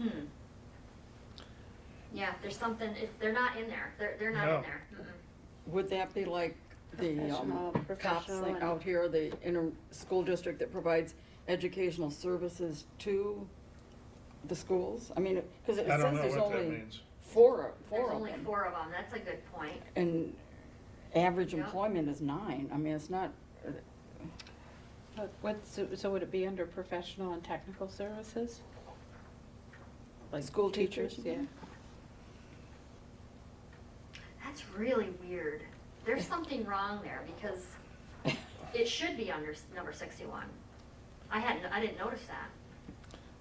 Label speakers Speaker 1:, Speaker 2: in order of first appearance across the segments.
Speaker 1: Hmm. Yeah, there's something, if, they're not in there, they're, they're not
Speaker 2: No.
Speaker 1: in there. Mm-mm.
Speaker 3: Would that be like the
Speaker 4: Professional,
Speaker 3: um, cops
Speaker 4: professional
Speaker 3: thing
Speaker 4: and-
Speaker 3: out here, the inner school district that provides educational services to the schools? I mean, because it
Speaker 2: I
Speaker 3: says
Speaker 2: don't know
Speaker 3: there's
Speaker 2: what that
Speaker 3: only
Speaker 2: means.
Speaker 3: four, of-
Speaker 1: There's
Speaker 3: four of
Speaker 1: only
Speaker 3: them.
Speaker 1: four of them, that's a good point.
Speaker 3: And average
Speaker 1: Yeah.
Speaker 3: employment is nine. I mean, it's not, uh,
Speaker 4: But What, so so would it be under professional and technical services? Like
Speaker 3: School teachers, you
Speaker 4: Yeah.
Speaker 3: mean?
Speaker 1: That's really weird. There's something wrong there because it should be under s- number sixty-one. I hadn't, I didn't notice that.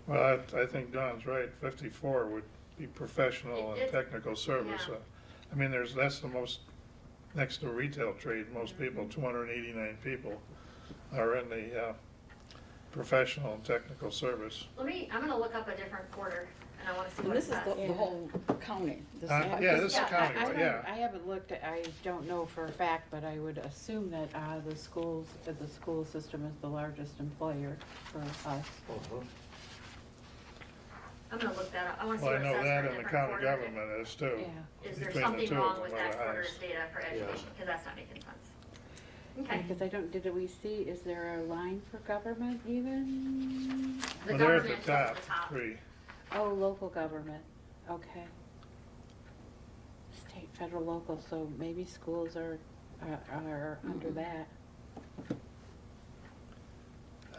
Speaker 2: Well, I, I think Don's right, fifty-four would be professional
Speaker 1: It-
Speaker 2: and
Speaker 1: it-
Speaker 2: technical service.
Speaker 1: yeah.
Speaker 2: Uh, I mean, there's, that's the most, next to retail trade, most people, two hundred and eighty-nine people are in the, uh, professional and technical service.
Speaker 1: Let me, I'm gonna look up a different quarter and I wanna see
Speaker 3: and
Speaker 1: what it
Speaker 3: this is
Speaker 1: says.
Speaker 3: the, the whole county. This is
Speaker 2: Uh,
Speaker 3: not
Speaker 2: yeah,
Speaker 3: just-
Speaker 2: this is
Speaker 1: yeah,
Speaker 4: I-
Speaker 2: county,
Speaker 4: I
Speaker 2: but
Speaker 4: don't- I
Speaker 2: yeah.
Speaker 4: haven't looked, at- I don't know for a fact, but I would assume that uh, the schools, that the school system is the largest employer for us.
Speaker 1: I'm gonna look that up. I wanna see
Speaker 2: Well,
Speaker 1: what it
Speaker 2: I
Speaker 1: says
Speaker 2: know
Speaker 1: for
Speaker 2: that
Speaker 1: a
Speaker 2: and the
Speaker 1: different
Speaker 2: county
Speaker 1: quarter.
Speaker 2: government is too.
Speaker 4: Yeah.
Speaker 1: Is there
Speaker 2: Between the
Speaker 1: something
Speaker 2: two of
Speaker 1: wrong
Speaker 2: them
Speaker 1: with
Speaker 2: are
Speaker 1: that
Speaker 2: the
Speaker 1: quarter's
Speaker 2: highest.
Speaker 1: data for education? Cause that's not making sense. Okay.
Speaker 4: Because I don't, did we see, is there a line for government even?
Speaker 1: The
Speaker 2: Well, they're at
Speaker 1: government
Speaker 2: the
Speaker 1: is at
Speaker 2: top,
Speaker 1: the top.
Speaker 2: three.
Speaker 4: Oh, local government, okay. State, federal, local, so maybe schools are, are- are under
Speaker 3: Mhm.
Speaker 4: that.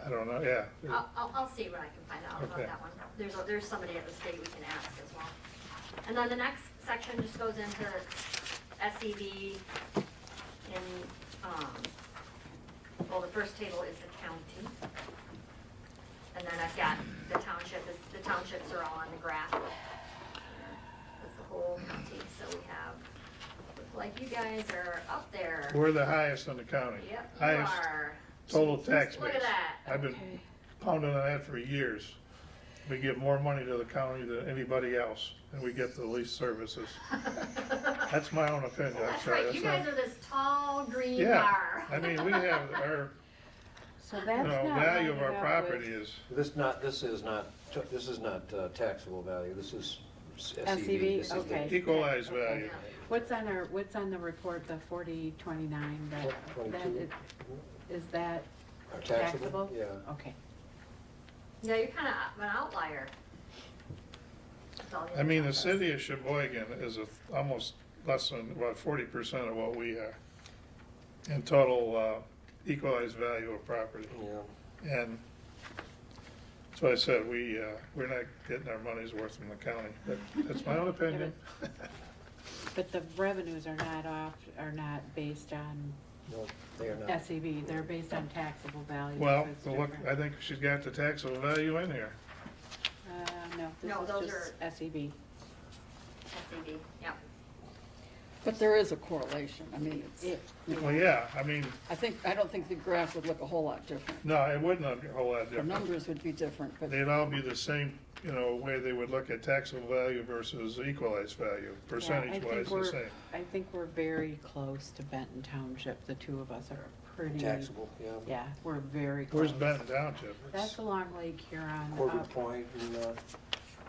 Speaker 2: I don't know, yeah.
Speaker 1: I'll, I'll, I'll see what I can find out about
Speaker 2: Okay.
Speaker 1: that one. There's, a- there's somebody at the state we can ask as well. And then the next section just goes into SEB and, um, well, the first table is the county. And then I've got the township, is- the townships are all on the graph. That's the whole county, so we have, look like you guys are up there.
Speaker 2: We're the highest in the county.
Speaker 1: Yep, you
Speaker 2: Highest
Speaker 1: are.
Speaker 2: total tax base.
Speaker 1: Look at that.
Speaker 2: I've been
Speaker 4: Okay.
Speaker 2: pounding on that for years. We give more money to the county than anybody else, and we get the least services. That's my own opinion, I'm
Speaker 1: That's
Speaker 2: sorry.
Speaker 1: right, you
Speaker 2: that's
Speaker 1: guys
Speaker 2: not-
Speaker 1: are this tall green
Speaker 2: Yeah,
Speaker 1: bar.
Speaker 2: I mean, we have our,
Speaker 4: So
Speaker 2: you
Speaker 4: that's
Speaker 2: know,
Speaker 4: not.
Speaker 2: value of our
Speaker 4: lining up with-
Speaker 2: property is,
Speaker 5: This not, this is not, t- this is not uh, taxable value, this is s-
Speaker 4: SEV,
Speaker 5: SEV. This is the-
Speaker 4: E okay.
Speaker 2: equalized value.
Speaker 4: What's on our, what's on the report, the forty twenty-nine, that,
Speaker 5: Twenty-
Speaker 4: that,
Speaker 5: twenty-two.
Speaker 4: is- is that
Speaker 5: Are
Speaker 4: taxable?
Speaker 5: taxable? Yeah.
Speaker 4: Okay.
Speaker 1: Yeah, you're kind of an outlier. That's all the
Speaker 2: I mean,
Speaker 1: other
Speaker 2: the
Speaker 1: stuff
Speaker 2: city of Sheboygan is a- almost less than, about forty percent of what we are in total uh, equalized value of property.
Speaker 5: Yeah.
Speaker 2: And that's why I said, we, uh, we're not getting our money's worth from the county, but that's my own opinion.
Speaker 4: But the revenues are not off, are not based on
Speaker 5: No, they are not.
Speaker 4: SEB, they're based on taxable value.
Speaker 2: Well,
Speaker 4: so it's
Speaker 2: look,
Speaker 4: different.
Speaker 2: I think she's got the taxable value in here.
Speaker 4: Uh, no,
Speaker 1: No, those
Speaker 4: this is
Speaker 1: are-
Speaker 4: just E SEB.
Speaker 1: is SED, yep.
Speaker 3: But there is a correlation. I mean,
Speaker 4: It-
Speaker 3: it's,
Speaker 2: Well, yeah, I mean,
Speaker 3: I think, I don't think the graph would look a whole lot different.
Speaker 2: no, it wouldn't be a whole lot
Speaker 3: The
Speaker 2: different.
Speaker 3: numbers would be different, but
Speaker 2: They'd all be the same, you know, way they would look at taxable value versus equalized value,
Speaker 4: yeah, I
Speaker 2: percentage
Speaker 4: think
Speaker 2: wise, the
Speaker 4: we're-
Speaker 2: same.
Speaker 4: I think we're very close to Benton Township, the two of us are pretty.
Speaker 5: Taxable, yeah.
Speaker 4: Yeah, we're very
Speaker 2: Where's
Speaker 4: close.
Speaker 2: Benton Township?
Speaker 4: That's along Lake Huron.
Speaker 5: Corbin
Speaker 4: up.
Speaker 5: Point, and uh,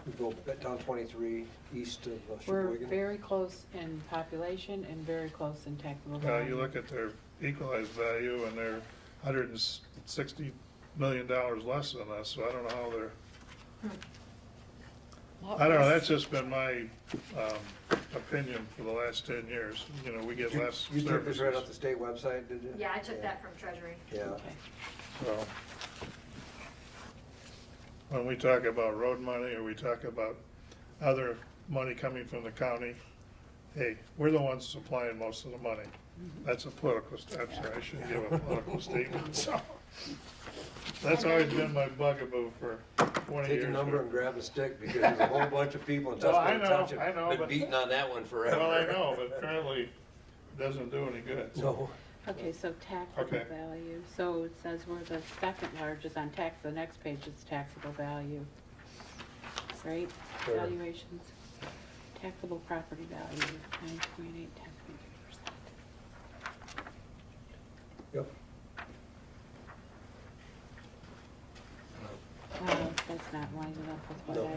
Speaker 5: we go back down 23, east of uh,
Speaker 4: We're
Speaker 5: Sheboygan.
Speaker 4: very close in population and very close in taxable
Speaker 2: Uh,
Speaker 4: value.
Speaker 2: you look at their equalized value and they're hundred and sixty million dollars less than us, so I don't know how they're, I don't know, that's just been my, um, opinion for the last ten years. You know, we get
Speaker 5: You-
Speaker 2: less
Speaker 5: You took this right off the
Speaker 2: services,
Speaker 5: state website, did you?
Speaker 1: Yeah, I took that from Treasury.
Speaker 5: Yeah.
Speaker 4: Okay.
Speaker 2: so. When we talk about road money or we talk about other money coming from the county, hey, we're the ones supplying most of the money.
Speaker 5: Mm-hmm.
Speaker 2: That's a political, st- I'm sorry, I shouldn't give a political statement, so. That's always been my bugaboo for twenty
Speaker 5: Take
Speaker 2: years.
Speaker 5: your number and grab a stick, because there's a whole bunch of people in
Speaker 2: Well, I
Speaker 5: Tuscaloosa
Speaker 2: know,
Speaker 5: Township
Speaker 2: I know,
Speaker 5: been
Speaker 2: but-
Speaker 5: beating on that one forever.
Speaker 2: Well, I know, but apparently it doesn't do any good.
Speaker 5: No.
Speaker 4: Okay, so taxable
Speaker 2: Okay.
Speaker 4: value, so it says we're the second largest on tax, the next page is taxable value. Right,
Speaker 5: Sure.
Speaker 4: valuations, taxable property value, nine point eight, ten point three percent.
Speaker 5: Yep.
Speaker 4: Wow, that's not lining up with what
Speaker 5: No.
Speaker 4: I